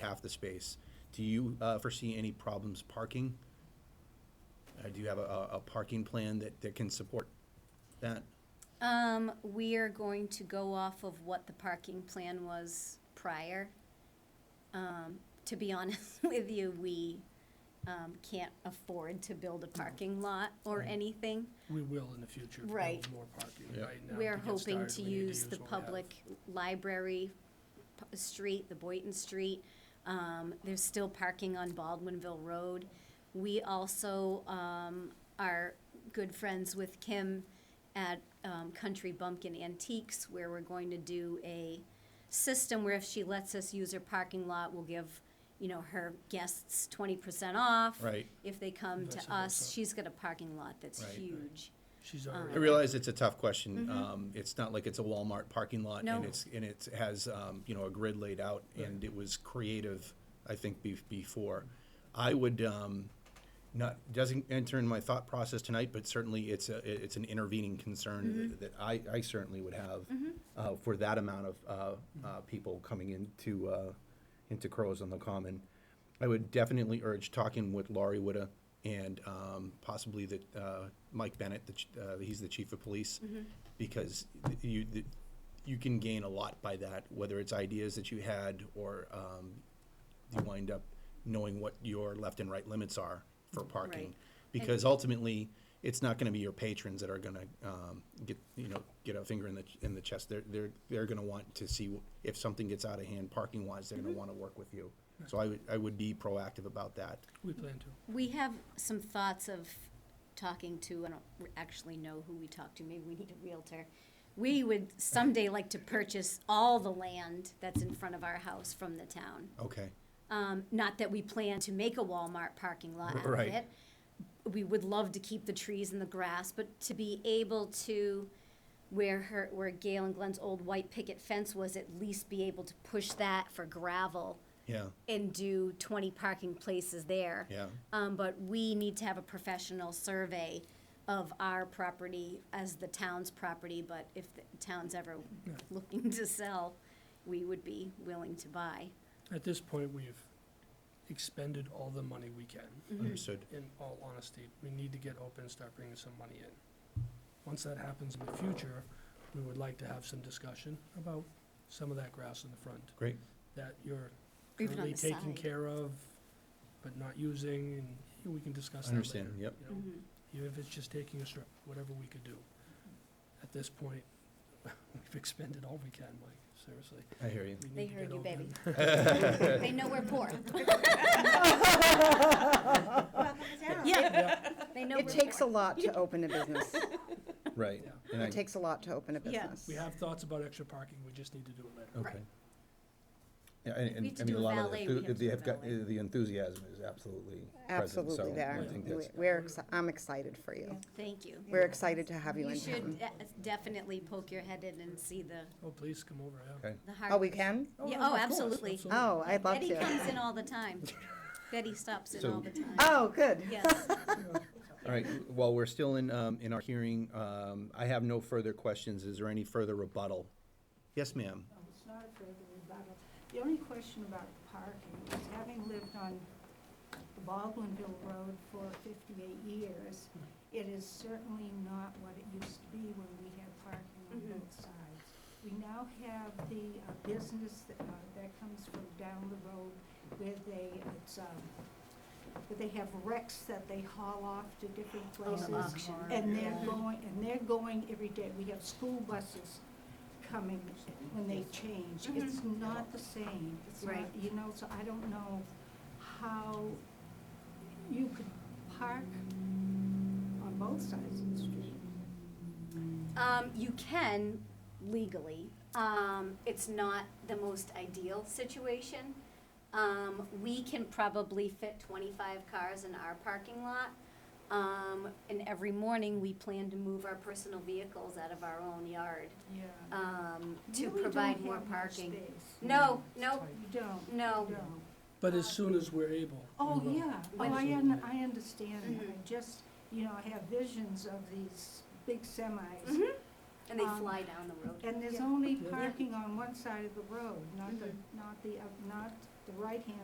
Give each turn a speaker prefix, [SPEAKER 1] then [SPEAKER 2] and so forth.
[SPEAKER 1] half the space. Do you uh, foresee any problems parking? Uh, Do you have a- a, a parking plan that, that can support that?
[SPEAKER 2] Um, we are going to go off of what the parking plan was prior. Um, to be honest with you, we, um, can't afford to build a parking lot or anything.
[SPEAKER 3] We will in the future. build
[SPEAKER 2] Right.
[SPEAKER 3] More parking
[SPEAKER 1] Yeah.
[SPEAKER 3] right now.
[SPEAKER 2] We're
[SPEAKER 3] get
[SPEAKER 2] hoping
[SPEAKER 3] started,
[SPEAKER 2] to
[SPEAKER 3] we need
[SPEAKER 2] use the
[SPEAKER 3] what we have.
[SPEAKER 2] public library p- street, the Boynton Street. Um, there's still parking on Baldwinville Road. We also, um, are good friends with Kim at, um, Country Bumpkin Antiques, where we're going to do a system where if she lets us use her parking lot, we'll give, you know, her guests twenty percent off.
[SPEAKER 1] Right.
[SPEAKER 2] If they come
[SPEAKER 3] Vice
[SPEAKER 2] to us,
[SPEAKER 3] versa.
[SPEAKER 2] she's got a parking lot that's
[SPEAKER 1] Right, right.
[SPEAKER 2] huge.
[SPEAKER 3] She's
[SPEAKER 2] um,
[SPEAKER 1] I
[SPEAKER 3] already,
[SPEAKER 1] realize it's a tough question. Um, It's not like it's a Walmart parking lot.
[SPEAKER 2] No.
[SPEAKER 1] And it's, and it has, um, you know, a grid laid out, and it was creative, I think, be- before. I would, um, not, doesn't enter in my thought process tonight, but certainly it's a, it- it's an intervening concern that I, I certainly would have uh, for that amount of uh, uh, people coming into, uh, into Crows on the Common. I would definitely urge talking with Laurie Witta and um, possibly that uh, Mike Bennett, the ch- uh, he's the chief of police, because you the, you can gain a lot by that, whether it's ideas that you had or um, you wind up knowing what your left and right limits are for parking,
[SPEAKER 2] Right.
[SPEAKER 1] because ultimately it's not going to be your patrons that are going to um, get you know get a finger in the in the chest. They're they're they're going to want to see if something gets out of hand parking wise. They're
[SPEAKER 2] Mm-hmm.
[SPEAKER 1] going to want to work with you. So I would I would be proactive about that.
[SPEAKER 3] we plan to.
[SPEAKER 2] We have some thoughts of talking to, I don't r- actually know who we talked to, maybe we need a Realtor. We would someday like to purchase all the land that's in front of our house from the town.
[SPEAKER 1] Okay.
[SPEAKER 2] Um, not that we plan to make a Walmart parking lot out of
[SPEAKER 1] Right.
[SPEAKER 2] it. We would love to keep the trees and the grass, but to be able to, where her, where Gail and Glenn's old white picket fence was, at least be able to push that for gravel
[SPEAKER 1] Yeah.
[SPEAKER 2] and do twenty parking places there.
[SPEAKER 1] Yeah.
[SPEAKER 2] Um, but we need to have a professional survey of our property as the town's property, but if the town's ever looking to sell, we would be willing to buy.
[SPEAKER 3] At this point, we've expended all the money we can.
[SPEAKER 2] Mm-hmm.
[SPEAKER 1] Understood.
[SPEAKER 3] In all honesty, we need to get open and start bringing some money in. Once that happens in the future, we would like to have some discussion about some of that grass in the front
[SPEAKER 1] Great.
[SPEAKER 3] that you're
[SPEAKER 2] Even on
[SPEAKER 3] currently
[SPEAKER 2] the
[SPEAKER 3] taking
[SPEAKER 2] side.
[SPEAKER 3] care of, but not using, and we can discuss that later.
[SPEAKER 1] Understand, yep.
[SPEAKER 3] you know.
[SPEAKER 2] Mm-hmm.
[SPEAKER 3] even if it's just taking a strip, whatever we could do. At this point, we've expended all we can, Mike, seriously.
[SPEAKER 1] I hear you.
[SPEAKER 3] We need
[SPEAKER 2] They
[SPEAKER 3] to
[SPEAKER 2] heard
[SPEAKER 3] get
[SPEAKER 2] you,
[SPEAKER 3] over
[SPEAKER 2] baby.
[SPEAKER 3] that.
[SPEAKER 2] They know we're poor. Yeah, they know we're
[SPEAKER 4] It
[SPEAKER 2] poor.
[SPEAKER 4] takes a lot to open a business.
[SPEAKER 1] Right.
[SPEAKER 3] Yeah.
[SPEAKER 1] And I-
[SPEAKER 4] It takes a lot to open a
[SPEAKER 5] Yeah.
[SPEAKER 4] business.
[SPEAKER 3] We have thoughts about extra parking, we just need to do it later.
[SPEAKER 1] Okay. Yeah, and,
[SPEAKER 2] We
[SPEAKER 1] and,
[SPEAKER 2] have to
[SPEAKER 1] I mean,
[SPEAKER 2] do
[SPEAKER 1] a
[SPEAKER 2] a
[SPEAKER 1] lot of, the
[SPEAKER 2] valet,
[SPEAKER 1] enthu-
[SPEAKER 2] we have to
[SPEAKER 1] they
[SPEAKER 2] do
[SPEAKER 1] have
[SPEAKER 2] a
[SPEAKER 1] got, uh,
[SPEAKER 2] valet.
[SPEAKER 1] the enthusiasm is absolutely present, so
[SPEAKER 4] Absolutely there.
[SPEAKER 1] I think
[SPEAKER 4] We-
[SPEAKER 1] that's,
[SPEAKER 4] We're, exci- I'm excited for you.
[SPEAKER 2] Thank you.
[SPEAKER 4] We're excited to have you
[SPEAKER 2] You
[SPEAKER 4] in
[SPEAKER 2] should
[SPEAKER 4] town.
[SPEAKER 2] de- definitely poke your head in and see the,
[SPEAKER 3] Oh, please, come over, yeah.
[SPEAKER 1] okay,
[SPEAKER 2] the hard.
[SPEAKER 4] Oh, we can?
[SPEAKER 2] Yeah,
[SPEAKER 3] no,
[SPEAKER 2] oh,
[SPEAKER 3] of course,
[SPEAKER 2] absolutely.
[SPEAKER 4] Oh, I'd love
[SPEAKER 2] Betty
[SPEAKER 4] to.
[SPEAKER 2] comes in all the time. Betty stops in
[SPEAKER 1] So-
[SPEAKER 2] all the time.
[SPEAKER 4] Oh, good.
[SPEAKER 2] Yes.
[SPEAKER 1] all right, while we're still in, um, in our hearing, um, I have no further questions, is there any further rebuttal? Yes, ma'am,
[SPEAKER 5] No, Oh, it's not a further rebuttal. The only question about parking is having lived on the Baldwinville Road for fifty-eight years, it is certainly not what it used to be when we had parking on
[SPEAKER 2] Mhm.
[SPEAKER 5] both sides. We now have the uh, business that, uh, that comes from down the road where they, it's, um, where they have wrecks that they haul off to different places.
[SPEAKER 2] auction.
[SPEAKER 5] And they're going, and they're going every day. We have school buses coming when they change. It's not the same. It's not-
[SPEAKER 2] Mm-hmm. Right.
[SPEAKER 5] You know, so I don't know how you could park on both sides of the street.
[SPEAKER 2] Um, you can legally. Um, it's not the most ideal situation. Um, we can probably fit twenty-five cars in our parking lot. Um, and every morning, we plan to move our personal vehicles out of our own yard,
[SPEAKER 5] Yeah.
[SPEAKER 2] um,
[SPEAKER 5] You
[SPEAKER 2] to
[SPEAKER 5] really
[SPEAKER 2] provide
[SPEAKER 5] don't
[SPEAKER 2] more
[SPEAKER 5] have much
[SPEAKER 2] parking.
[SPEAKER 5] space.
[SPEAKER 2] No, no,
[SPEAKER 5] You don't,
[SPEAKER 2] no.
[SPEAKER 5] you don't.
[SPEAKER 3] But as soon as we're able. we
[SPEAKER 5] Oh,
[SPEAKER 3] will.
[SPEAKER 5] yeah, oh,
[SPEAKER 2] When-
[SPEAKER 5] I, un- I understand that.
[SPEAKER 2] Mhm.
[SPEAKER 5] I just, you know, I have visions of these big semis
[SPEAKER 2] Mhm. And they
[SPEAKER 5] Um,
[SPEAKER 2] fly down the road.
[SPEAKER 5] And there's
[SPEAKER 2] Yeah. Mm-hmm.
[SPEAKER 5] only
[SPEAKER 3] Yeah.
[SPEAKER 5] parking on one side of the road, not the, not the, oth- not the right-hand